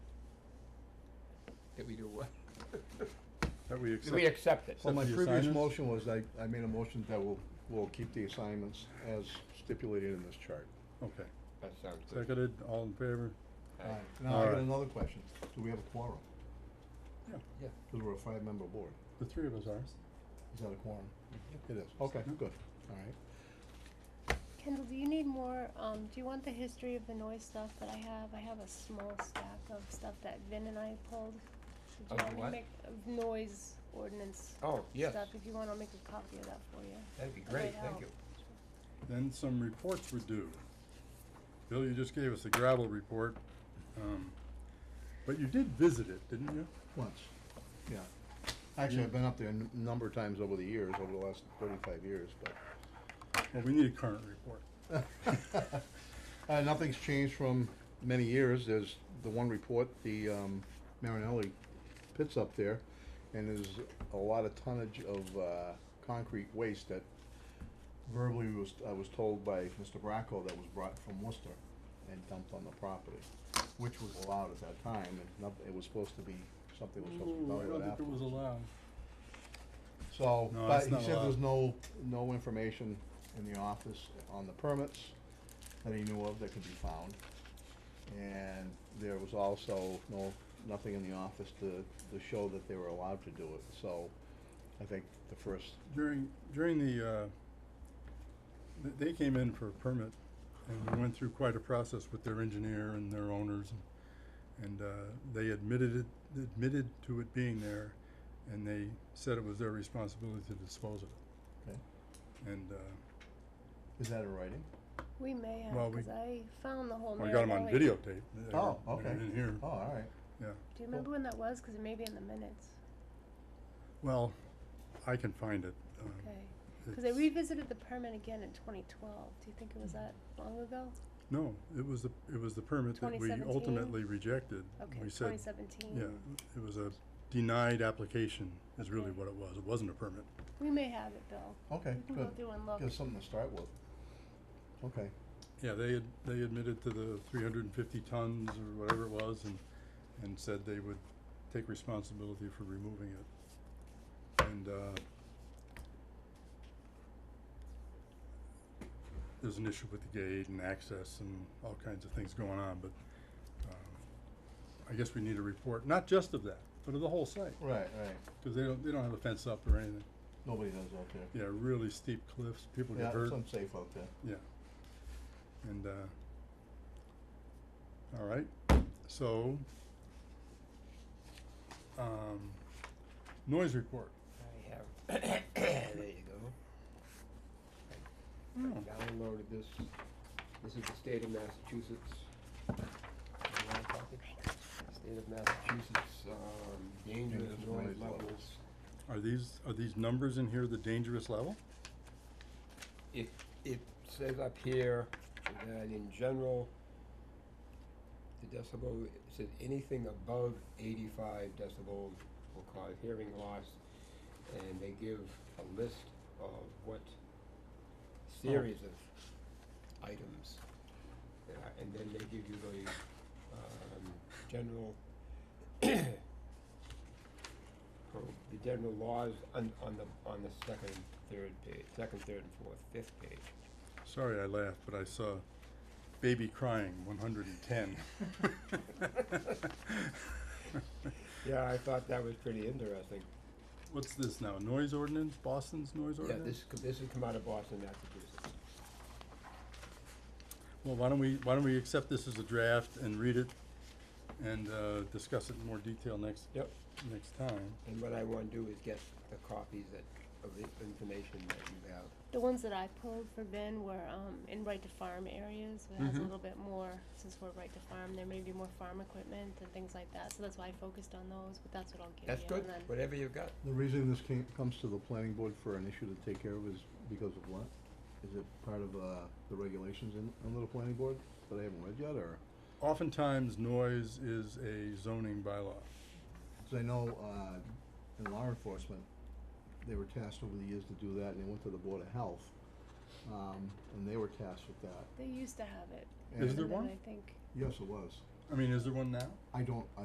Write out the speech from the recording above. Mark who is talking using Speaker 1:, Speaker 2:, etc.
Speaker 1: That we do what?
Speaker 2: That we accept.
Speaker 1: We accept it.
Speaker 2: Well,
Speaker 3: Well, my
Speaker 2: Except for the
Speaker 3: previous
Speaker 2: assignments?
Speaker 3: motion was, I, I made a motion that we'll, we'll keep the assignments as stipulated in this chart.
Speaker 2: Okay,
Speaker 1: That sounds good.
Speaker 2: seconded, all in favor?
Speaker 1: Aye.
Speaker 3: Now, I got
Speaker 2: Alright.
Speaker 3: another question, do we have a quorum?
Speaker 2: Yeah.
Speaker 1: Yeah.
Speaker 3: Because we're a five-member board,
Speaker 2: The three of us are.
Speaker 3: is that a quorum?
Speaker 2: Mm-hmm.
Speaker 3: It is, okay,
Speaker 2: Yeah.
Speaker 3: good, alright.
Speaker 4: Kendall, do you need more, um, do you want the history of the noise stuff that I have? I have a small stack of stuff that Vin and I pulled. Did you
Speaker 1: Of
Speaker 4: want me to
Speaker 1: what?
Speaker 4: make- Of noise ordinance
Speaker 1: Oh, yes,
Speaker 4: stuff, if you want, I'll make a copy of that for you.
Speaker 1: that'd be
Speaker 4: That
Speaker 1: great,
Speaker 4: might
Speaker 1: thank
Speaker 4: help.
Speaker 1: you.
Speaker 2: Then some reports were due. Bill, you just gave us the gravel report, um, but you did visit it, didn't you?
Speaker 3: Once, yeah. Actually,
Speaker 2: Yeah.
Speaker 3: I've been up there a n- number of times over the years, over the last thirty-five years, but.
Speaker 2: Well, we need a current report.
Speaker 3: Uh, nothing's changed from many years, there's the one report, the, um, Marinelli pits up there, and there's a lot of tonnage of, uh, concrete waste that verbally was, I was told by Mr. Bracco that was brought from Worcester and dumped on the property, which was allowed at that time, and not, it was supposed to be, something was supposed to be
Speaker 2: Ooh,
Speaker 3: done
Speaker 2: I
Speaker 3: with
Speaker 2: don't think it was allowed.
Speaker 3: so,
Speaker 2: No,
Speaker 3: but
Speaker 2: that's
Speaker 3: he
Speaker 2: not
Speaker 3: said there's
Speaker 2: allowed.
Speaker 3: no, no information in the office on the permits that he knew of that could be found. And there was also no, nothing in the office to, to show that they were allowed to do it, so I think the first,
Speaker 2: During, during the, uh, th- they came in for a permit, and we went through quite a process with their engineer and their owners, and- and, uh, they admitted it, admitted to it being there, and they said it was their responsibility to dispose of it.
Speaker 3: Okay.
Speaker 2: And, uh,
Speaker 3: is that in writing?
Speaker 4: We may have,
Speaker 2: Well, we-
Speaker 4: cause I found the whole
Speaker 2: well, I got them on
Speaker 4: Marinelli-
Speaker 2: videotape. They
Speaker 3: Oh,
Speaker 2: were- they were
Speaker 3: okay.
Speaker 2: in here.
Speaker 3: Oh, all right.
Speaker 4: Do you remember
Speaker 2: Oh.
Speaker 4: when that was? Cause it may be in the minutes,
Speaker 2: Well, I can find it. um,
Speaker 4: okay? Cause they
Speaker 2: it's-
Speaker 4: revisited the permit again in twenty twelve. Do you think it was that long ago?
Speaker 2: No, it was the, it was the permit that we
Speaker 4: 2017?
Speaker 2: ultimately rejected.
Speaker 4: Okay,
Speaker 2: We
Speaker 4: twenty
Speaker 2: said,
Speaker 4: seventeen.
Speaker 2: Yeah, it was a denied application is really
Speaker 4: Okay.
Speaker 2: what it was. It wasn't a permit.
Speaker 4: We may have it, Bill.
Speaker 3: Okay,
Speaker 4: We can
Speaker 3: good.
Speaker 4: go through and look.
Speaker 3: Give us something to start with. Okay,
Speaker 2: Yeah, they had, they admitted to the three hundred and fifty tons or whatever it was and, and said they would take responsibility for removing it. And, uh, there's an issue with the gate and access and all kinds of things going on, but, um, I guess we need a report, not just of that, but of the whole site,
Speaker 3: right, right.
Speaker 2: cause they don't, they don't have a fence up or anything.
Speaker 3: Nobody does out there.
Speaker 2: Yeah, really steep cliffs, people
Speaker 3: Yeah,
Speaker 2: get hurt,
Speaker 3: it's unsafe out there.
Speaker 2: and, uh, all right, so, um, noise report.
Speaker 1: I have, there you go.
Speaker 2: Oh,
Speaker 1: I downloaded this, this is the state of Massachusetts. You want a copy? State of Massachusetts, um, dangerous
Speaker 3: Dangerous
Speaker 1: noise
Speaker 3: noise
Speaker 1: levels.
Speaker 3: levels.
Speaker 2: Are these, are these numbers in here the dangerous level?
Speaker 1: It, it says up here that in general, the decibel, it says anything above eighty-five decibels will cause hearing loss. And they give a list of what series of items. that are- And then they give you the, um, general pro- the general laws on, on the, on the second, third page, second, third, and fourth, fifth page.
Speaker 2: Sorry, I laughed, but I saw baby crying, one hundred and ten.
Speaker 1: Yeah, I thought that was pretty interesting.
Speaker 2: What's this now, noise ordinance, Boston's noise
Speaker 1: Yeah,
Speaker 2: ordinance?
Speaker 1: this, co- this has come out of Boston, Massachusetts.
Speaker 2: Well, why don't we, why don't we accept this as a draft and read it and, uh, discuss it in more detail next,
Speaker 1: Yep.
Speaker 2: next time?
Speaker 1: And what I wanna do is get the copies that, of the information that you have.
Speaker 4: The ones that I pulled for Ben were um, in right to farm areas. It has
Speaker 1: Mhm.
Speaker 4: a little bit more, since we're right to farm, there may be more farm equipment and things like that. So that's why I focused on those, but that's what I'll give
Speaker 1: That's
Speaker 4: you.
Speaker 1: good,
Speaker 4: And then
Speaker 1: whatever you've got.
Speaker 3: The reason this came, comes to the planning board for an issue to take care of is because of what? Is it part of, uh, the regulations in, under the planning board that I haven't read yet, or?
Speaker 2: Oftentimes, noise is a zoning bylaw.
Speaker 3: Cause I know, uh, in law enforcement, they were tasked over the years to do that, and they went to the board of health, um, and they were tasked with that.
Speaker 4: they used to have it.
Speaker 2: Is
Speaker 3: And-
Speaker 2: there
Speaker 4: and then
Speaker 2: one?
Speaker 4: I think.
Speaker 3: Yes, it was.
Speaker 2: I mean, is there one now?
Speaker 3: I don't,